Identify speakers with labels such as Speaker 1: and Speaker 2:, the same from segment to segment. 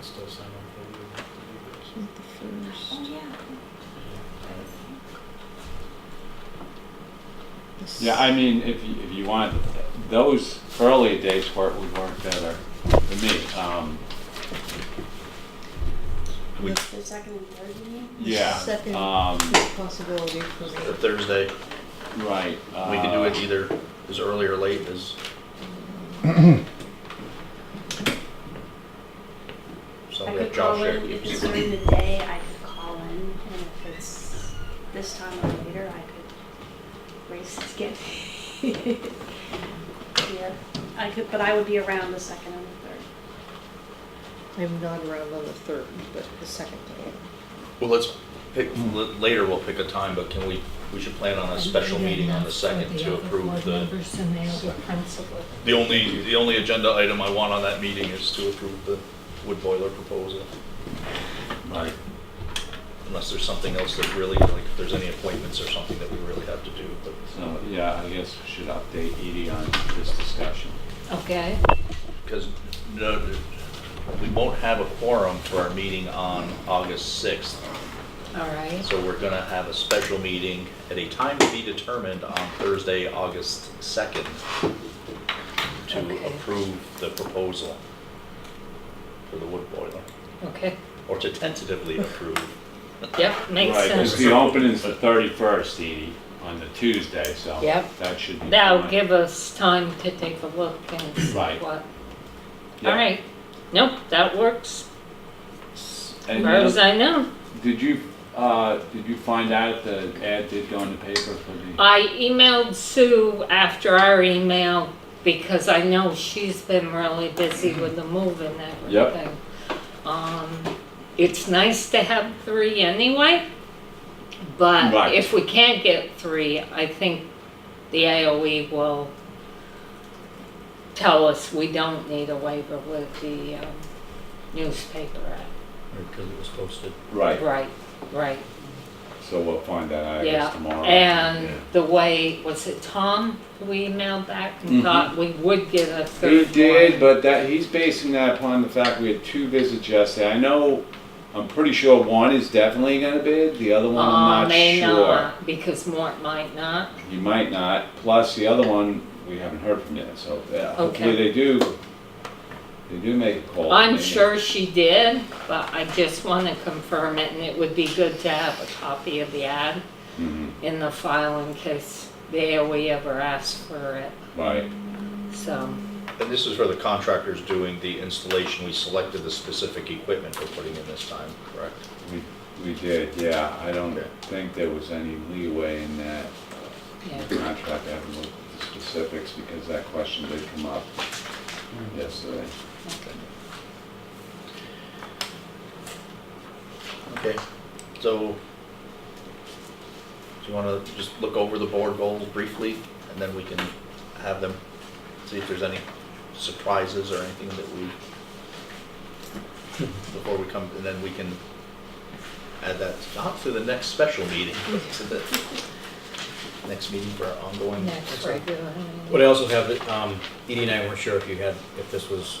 Speaker 1: us, I don't think we have to do this.
Speaker 2: Not the first.
Speaker 3: Oh, yeah.
Speaker 2: The
Speaker 4: Yeah, I mean, if you, if you want, those early dates where it would work better for me. Um,
Speaker 2: We-
Speaker 3: The second and third, you mean?
Speaker 4: yeah.
Speaker 2: Second.
Speaker 4: Um,
Speaker 2: s- is a possibility for
Speaker 5: The
Speaker 2: me.
Speaker 5: Thursday,
Speaker 4: right.
Speaker 5: we could do
Speaker 4: uh,
Speaker 5: it either as early or late as
Speaker 3: I
Speaker 5: something
Speaker 3: could
Speaker 5: that
Speaker 3: call
Speaker 5: Josh
Speaker 3: in, if it's during
Speaker 5: shared.
Speaker 3: the day, I could call in, and if it's this time or later, I could race to get here. I could, but I would be around the second and the third.
Speaker 2: I'm not around on the third, but the second day.
Speaker 5: Well, let's pick, l- later we'll pick a time, but can we, we should plan on a special meeting on the second to approve the
Speaker 6: Members and the other principal.
Speaker 5: The only, the only agenda item I want on that meeting is to approve the wood boiler proposal,
Speaker 4: Right.
Speaker 5: unless there's something else that really, like, if there's any appointments or something that we really have to do, but.
Speaker 4: So, yeah, I guess we should update Edie on this discussion.
Speaker 6: Okay,
Speaker 5: Because no, we won't have a quorum for our meeting on August 6th,
Speaker 6: all right.
Speaker 5: so we're gonna have a special meeting at a time to be determined on Thursday, August 2nd,
Speaker 6: Okay.
Speaker 5: to approve the proposal for the wood boiler,
Speaker 6: Okay,
Speaker 5: or to tentatively approve.
Speaker 6: yep, makes
Speaker 4: Right, because
Speaker 6: sense.
Speaker 4: the opening's the thirty-first, Edie, on the Tuesday, so
Speaker 6: Yep.
Speaker 4: that should be.
Speaker 6: That'll
Speaker 4: fine.
Speaker 6: give us time to take a look and see
Speaker 4: Right.
Speaker 6: what.
Speaker 4: Yeah.
Speaker 6: All right, nope, that works, as
Speaker 4: And
Speaker 6: far as
Speaker 4: then,
Speaker 6: I know.
Speaker 4: did you, uh, did you find out if the ad did go in the paper for the?
Speaker 6: I emailed Sue after our email because I know she's been really busy with the move and
Speaker 4: Yep.
Speaker 6: everything. Um, it's nice to have three anyway, but
Speaker 4: Right.
Speaker 6: if we can't get three, I think the AOE will tell us we don't need a waiver with the, um, newspaper act.
Speaker 5: Because it was posted.
Speaker 4: Right,
Speaker 6: Right, right.
Speaker 4: so we'll find that out, I
Speaker 6: Yeah,
Speaker 4: guess, tomorrow.
Speaker 6: And the way, was it Tom who emailed back and
Speaker 4: Mhm.
Speaker 6: thought we would get a third
Speaker 4: He
Speaker 6: one?
Speaker 4: did, but that, he's basing that upon the fact we had two visits yesterday. I know, I'm pretty sure one is definitely gonna bid, the other one
Speaker 6: Uh,
Speaker 4: I'm
Speaker 6: may
Speaker 4: not
Speaker 6: not, because Mort might not.
Speaker 4: sure. He might not, plus the other one, we haven't heard from yet, so uh, hopefully
Speaker 6: Okay.
Speaker 4: they do, they do make a call.
Speaker 6: I'm
Speaker 4: maybe.
Speaker 6: sure she did, but I just want to confirm it, and it would be good to have a copy of the ad
Speaker 4: Mhm,
Speaker 6: in the file in case they we ever ask for it,
Speaker 4: Right,
Speaker 6: so.
Speaker 5: And this is for the contractors doing the installation, we selected the specific equipment we're putting in this time, correct?
Speaker 4: we, we did, yeah, I don't
Speaker 5: Okay.
Speaker 4: think there was any leeway in that uh,
Speaker 6: yeah.
Speaker 4: contract, I haven't looked at the specifics, because that question did come up yesterday.
Speaker 5: Okay, so, do you wanna just look over the board goals briefly, and then we can have them, see if there's any surprises or anything that we, before we come, and then we can add that, not to the next special meeting, but to the next meeting for our ongoing.
Speaker 6: Next regular.
Speaker 7: What I also have, that, um, Edie and I weren't sure if you had, if this was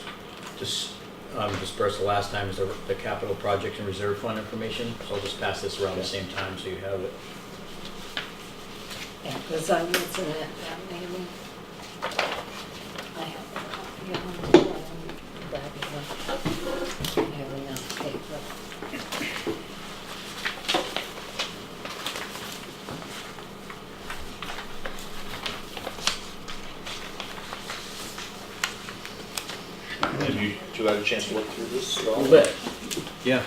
Speaker 7: dis- um, dispersed the last time, is the the capital project and reserve fund information. So I'll just pass this around the same time so you have it.
Speaker 6: Yeah, because I wasn't at that meeting. I have a copy of it, um, but I don't have enough paper.
Speaker 5: Have you, do you have a chance to look through this at all?
Speaker 7: Yeah.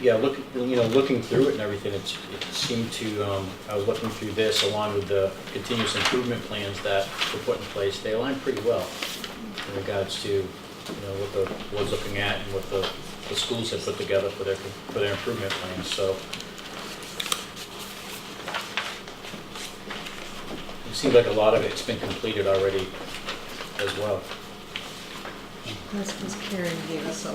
Speaker 7: Yeah, look, you know, looking through it and everything, it's, it seemed to, um, I was looking through this along with the continuous improvement plans that were put in place, they align pretty well in regards to, you know, what the board's looking at and what the, the schools have put together for their, for their improvement plans, so. It seems like a lot of it's been completed already as well.
Speaker 2: That's because Karen gave us a